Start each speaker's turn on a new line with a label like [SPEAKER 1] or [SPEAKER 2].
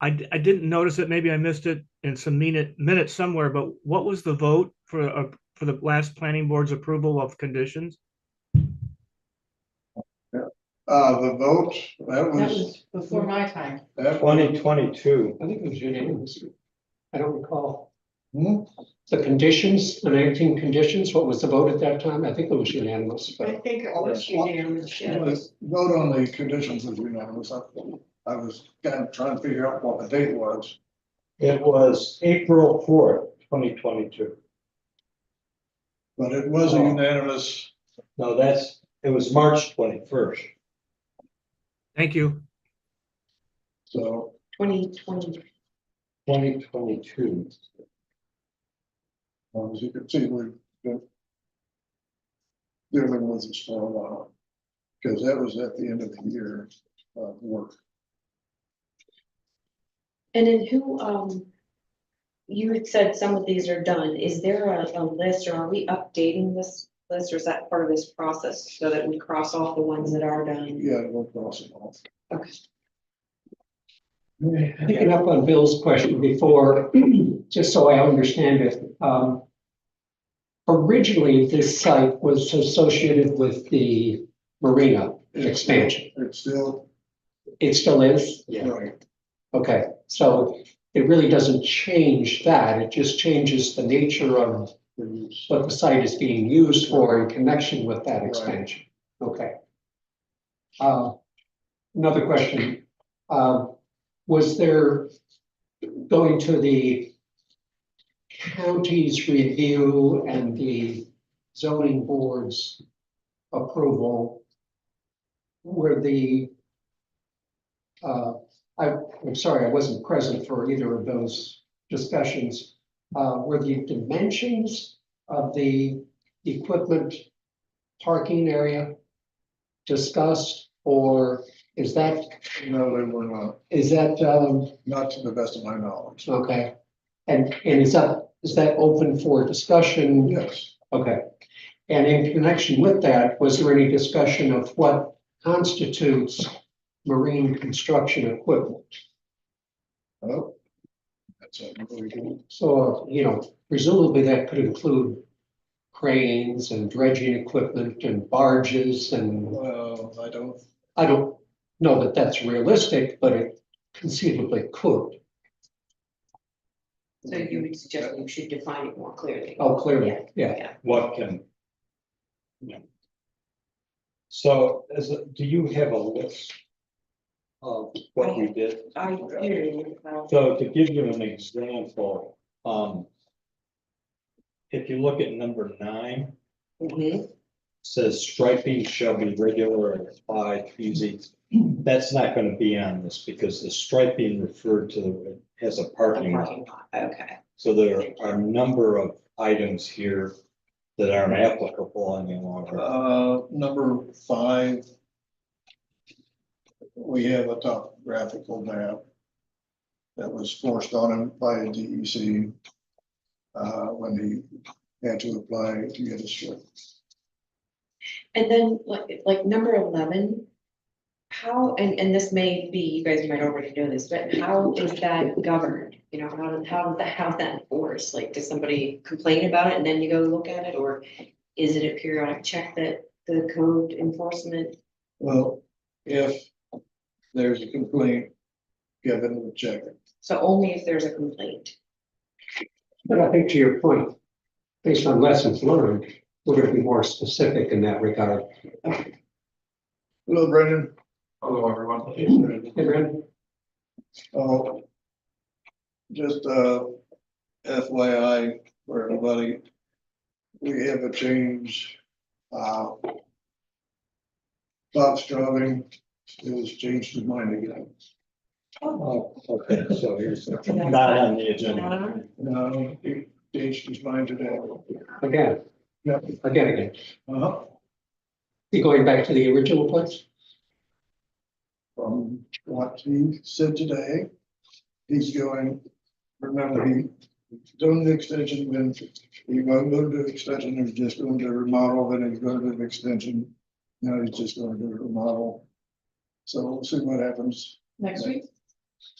[SPEAKER 1] I, d- I didn't notice it, maybe I missed it in some minute, minutes somewhere, but what was the vote for, uh, for the last planning board's approval of conditions?
[SPEAKER 2] Uh, the vote, that
[SPEAKER 3] That
[SPEAKER 2] was,
[SPEAKER 3] was before my time.
[SPEAKER 2] that
[SPEAKER 4] Twenty
[SPEAKER 2] was,
[SPEAKER 4] twenty-two,
[SPEAKER 5] I think it was unanimous. I don't recall.
[SPEAKER 2] Hmm?
[SPEAKER 5] The conditions, the nineteen conditions, what was the vote at that time? I think it was unanimous,
[SPEAKER 3] I
[SPEAKER 5] but
[SPEAKER 3] think it was unanimous,
[SPEAKER 2] it
[SPEAKER 3] yeah.
[SPEAKER 2] was- vote on the conditions as you know, was up. I was kind of trying to figure out what the date was.
[SPEAKER 4] it was April fourth, twenty twenty-two.
[SPEAKER 2] But it was
[SPEAKER 3] Oh.
[SPEAKER 2] a unanimous,
[SPEAKER 4] No, that's, it was March twenty-first.
[SPEAKER 1] Thank you.
[SPEAKER 2] so
[SPEAKER 3] Twenty twenty,
[SPEAKER 4] Twenty twenty-two.
[SPEAKER 2] um, as you can see, we've been dealing with this for a while. Because that was at the end of the year, uh, work.
[SPEAKER 6] And then who, um, you had said some of these are done. Is there a, a list or are we updating this list or is that part of this process so that we cross off the ones that are done?
[SPEAKER 2] Yeah, we'll cross it off.
[SPEAKER 6] Okay.
[SPEAKER 5] picking up on Bill's question before, just so I understand it, um. Originally, this site was associated with the marina expansion.
[SPEAKER 2] It's still,
[SPEAKER 5] It still is?
[SPEAKER 2] right,
[SPEAKER 5] Okay, so it really doesn't change that. It just changes the nature of
[SPEAKER 2] it's-
[SPEAKER 5] what the site is being used for in connection with that expansion. Okay. Uh, Another question. Um, Was there going to the county's review and the zoning board's approval? Were the uh, I, I'm sorry, I wasn't present for either of those discussions. Uh, Were the dimensions of the equipment parking area discussed? Or is that,
[SPEAKER 2] no, they were not,
[SPEAKER 5] is that, um,
[SPEAKER 2] not to the best of my knowledge.
[SPEAKER 5] okay? And, and is that, is that open for discussion?
[SPEAKER 2] Yes.
[SPEAKER 5] Okay. And in connection with that, was there any discussion of what constitutes marine construction equipment?
[SPEAKER 2] Oh. That's a really good.
[SPEAKER 5] So, you know, presumably that could include cranes and dredging equipment and barges and
[SPEAKER 2] Well, I don't,
[SPEAKER 5] I don't know that that's realistic, but it conceivably could.
[SPEAKER 6] So you would suggest we should define it more clearly?
[SPEAKER 5] Oh, clearly, yeah.
[SPEAKER 6] Yeah.
[SPEAKER 4] What can? Yeah. So, is, it- do you have a list? Of what we did?
[SPEAKER 6] I, do, uh,
[SPEAKER 4] So to give you an example, um. If you look at number nine,
[SPEAKER 6] mhm.
[SPEAKER 4] says striping shall be regular and applied easy. That's not gonna be on this because the striping referred to as a
[SPEAKER 6] The
[SPEAKER 4] parking lot.
[SPEAKER 6] parking lot, okay.
[SPEAKER 4] So there are a number of items here that aren't applicable any longer.
[SPEAKER 2] uh, number five. We have a topographical map. That was forced on him by the DEC. Uh, when he had to apply to get a strip.
[SPEAKER 6] And then like, like number eleven, how, and, and this may be, you guys might already know this, but how is that governed? You know, how, how, the- how's that enforced? Like, does somebody complain about it and then you go look at it? Or is it a periodic check that the code enforcement?
[SPEAKER 2] Well, if there's a complaint, given the check. it.
[SPEAKER 6] So only if there's a complaint.
[SPEAKER 5] But I think to your point, based on lessons learned, we're gonna be more specific in that regard.
[SPEAKER 2] Hello, Brendan.
[SPEAKER 7] Hello, everyone.
[SPEAKER 5] Hey, Brad?
[SPEAKER 2] Oh. Just, uh, FYI for everybody. We have a change, uh. Bob Straubing has changed his mind again.
[SPEAKER 4] Oh, okay, so here's not on the agenda.
[SPEAKER 2] No, he changed his mind today.
[SPEAKER 5] Again,
[SPEAKER 2] Yep.
[SPEAKER 5] again, again.
[SPEAKER 2] Uh-huh.
[SPEAKER 5] You going back to the original place?
[SPEAKER 2] From what he said today, he's going, remember, he done the extension, then he won't go to extension, he's just going to remodel, then he's going to do an extension. Now he's just going to do a remodel. So we'll see what happens.
[SPEAKER 3] next week,